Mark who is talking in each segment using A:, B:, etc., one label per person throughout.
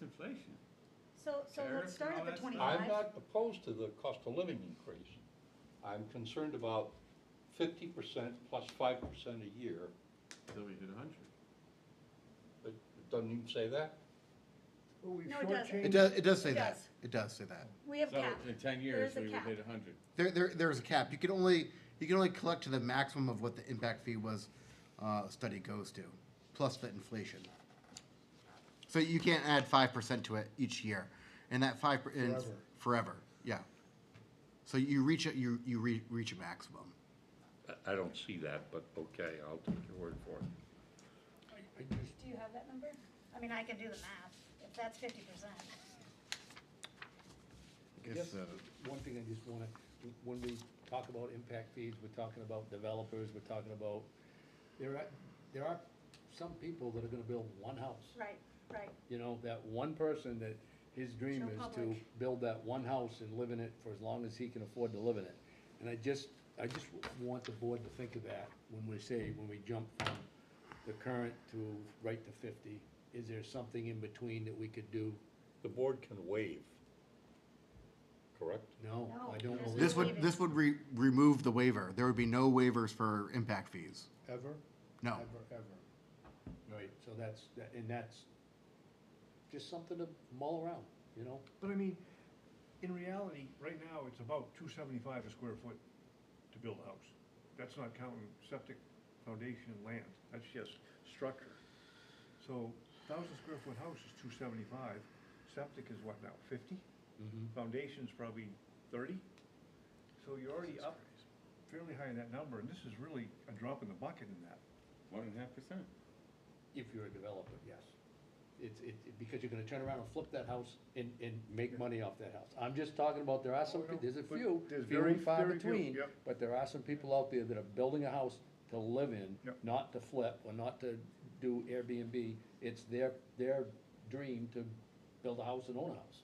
A: inflation.
B: So, so
A: Tariff and
B: let's start
A: all
B: at the
A: that stuff. I'm
B: twenty-five.
C: I'm not opposed to the cost of living increase. I'm concerned about fifty percent plus five percent a year,
A: Until we hit a hundred.
C: but it doesn't even say that.
D: But we've
B: No, it doesn't.
E: It does, it does
B: It
E: say that.
B: does.
E: It does say that.
B: We have
A: So
B: cap.
A: in ten
B: There
A: years,
B: is a
A: we would
B: cap.
A: hit a hundred.
E: There, there, there is a cap. You can only, you can only collect to the maximum of what the impact fee was, uh, study goes to, plus the inflation. So you can't add five percent to it each year, and that five, per- and
D: Forever.
E: forever, yeah. So you reach, a you, you re- reach a maximum.
C: I- I don't see that, but okay, I'll take your word for it.
D: I just,
B: Do you have that number? I mean, I can do the math, if that's fifty percent.
E: I guess
F: Yes,
E: uh, so.
F: one thing I just wanna, when we talk about impact fees, we're talking about developers, we're talking about, there are, there are some people that are gonna build one house.
B: Right, right.
F: You know, that one person that, his dream
B: No
F: is to
B: public.
F: build that one house and live in it for as long as he can afford to live in it. And I just, I just want the board to think of that when we say, when we jump from the current to right to fifty. Is there something in between that we could do?
C: The board can waive, correct?
F: No, I
B: No,
F: don't
B: there's
F: believe.
E: This would, this would re- remove the waiver. There would be no waivers for impact fees.
D: ever?
E: No.
D: Ever, ever.
F: Right, so that's, that- and that's just something to mull around, you know?
D: But I mean, in reality, right now, it's about two seventy-five a square foot to build a house. That's not counting septic, foundation, and land, that's just structure. So thousand square foot house is two seventy-five, septic is what now, fifty?
A: Mm-hmm.
D: Foundation's probably thirty, so you're already up fairly high in that number, and this is really a drop in the bucket in that.
A: One and a half percent.
F: If you're a developer, yes. It's, it, it- because you're gonna turn around and flip that house and, and make money off that house. I'm just talking about, there are some,
D: Oh, no,
F: there's a
D: but
F: few,
D: there's
F: few
D: very-
F: and far
D: very few,
F: between,
D: yep.
F: but there are some people out there that are building a house to live in,
D: Yep.
F: not to flip or not to do Airbnb. It's their, their dream to build a house and own a house.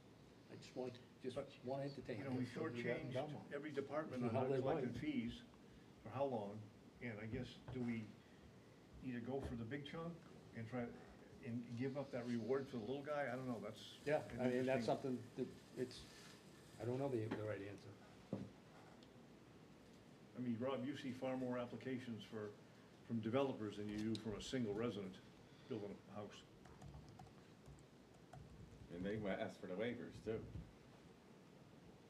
F: I just want, just want to entertain.
D: You know, we
F: it.
D: shortchanged every department on
F: How
D: how
F: they
D: to collected
F: like.
D: fees for how long, and I guess, do we either go for the big chunk and try, and give up that reward for the little guy? I don't know, that's.
F: Yeah,
D: an
F: I mean, that's
D: interesting-
F: something that, it's, I don't know the, the right answer.
D: I mean, Rob, you see far more applications for, from developers than you do from a single resident building a house.
A: And they wa- ask for the waivers too.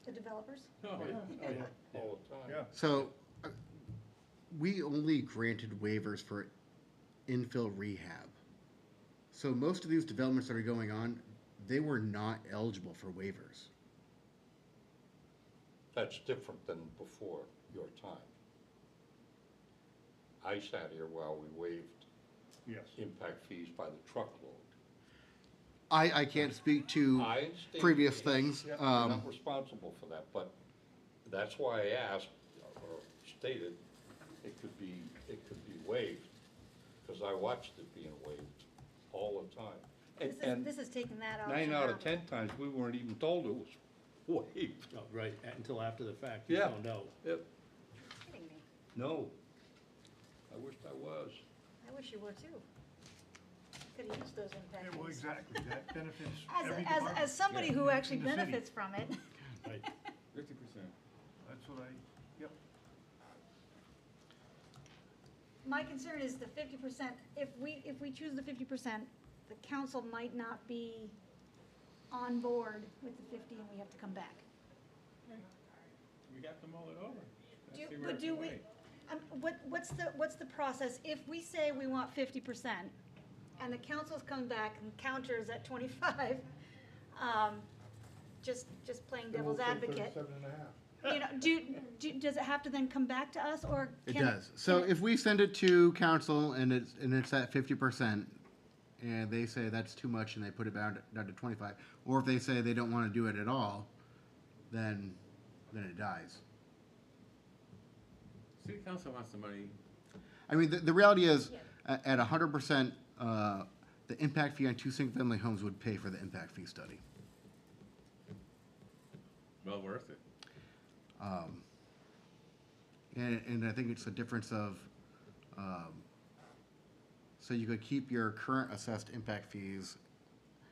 B: The developers?
A: Oh, yeah.
C: All the time.
D: Yeah,
E: So, uh, we only granted waivers for infill rehab. So most of these developments that are going on, they were not eligible for waivers.
C: That's different than before your time. I sat here while we waived
D: yes.
C: impact fees by the truckload.
E: I, I can't speak to
C: I understand.
E: previous things.
C: Yeah, You're
E: Um,
C: not responsible for that, but that's why I asked or stated it could be, it could be waived, because I watched it being waived all the time. And-
B: This is,
C: and
B: this is taking that option out.
C: Nine out of ten times, we weren't even told it was waived.
F: Oh, Right, a- until after the fact, you
C: Yeah.
F: don't know.
C: Yep.
B: Kidding me.
C: No. I wished I was.
B: I wish you were too. Could've used those
D: Yeah,
B: impact
D: well,
B: fees.
D: exactly, that benefits
B: As,
D: every
B: as,
D: department.
B: as somebody who actually
D: In the city.
B: benefits from it,
F: Right.
A: Fifty percent.
D: That's what I, yep.
B: my concern is the fifty percent, if we, if we choose the fifty percent, the council might not be on board with the fifty and we have to come back.
A: We got to mull it over. Let's
B: Do,
A: see where
B: but
A: it's
B: do we,
A: going.
B: um, what, what's the, what's the process, if we say we want fifty percent, and the council's come back and counters at twenty-five, um, just, just playing devil's advocate,
D: Seven and a half.
B: you know, do, do, does it have to then come back to us, or
E: It
B: can-
E: does. So
B: can-
E: if we send it to council and it's, and it's at fifty percent, and they say that's too much and they put it down, down to twenty-five, or if they say they don't wanna do it at all, then, then it dies.
A: City council wants the money.
E: I mean, the, the reality is,
B: Yeah.
E: a- at hundred percent, uh, the impact fee on two single-family homes would pay for the impact fee study.
A: Well worth it.
E: Um, and, and I think it's the difference of, um, so you could keep your current assessed impact fees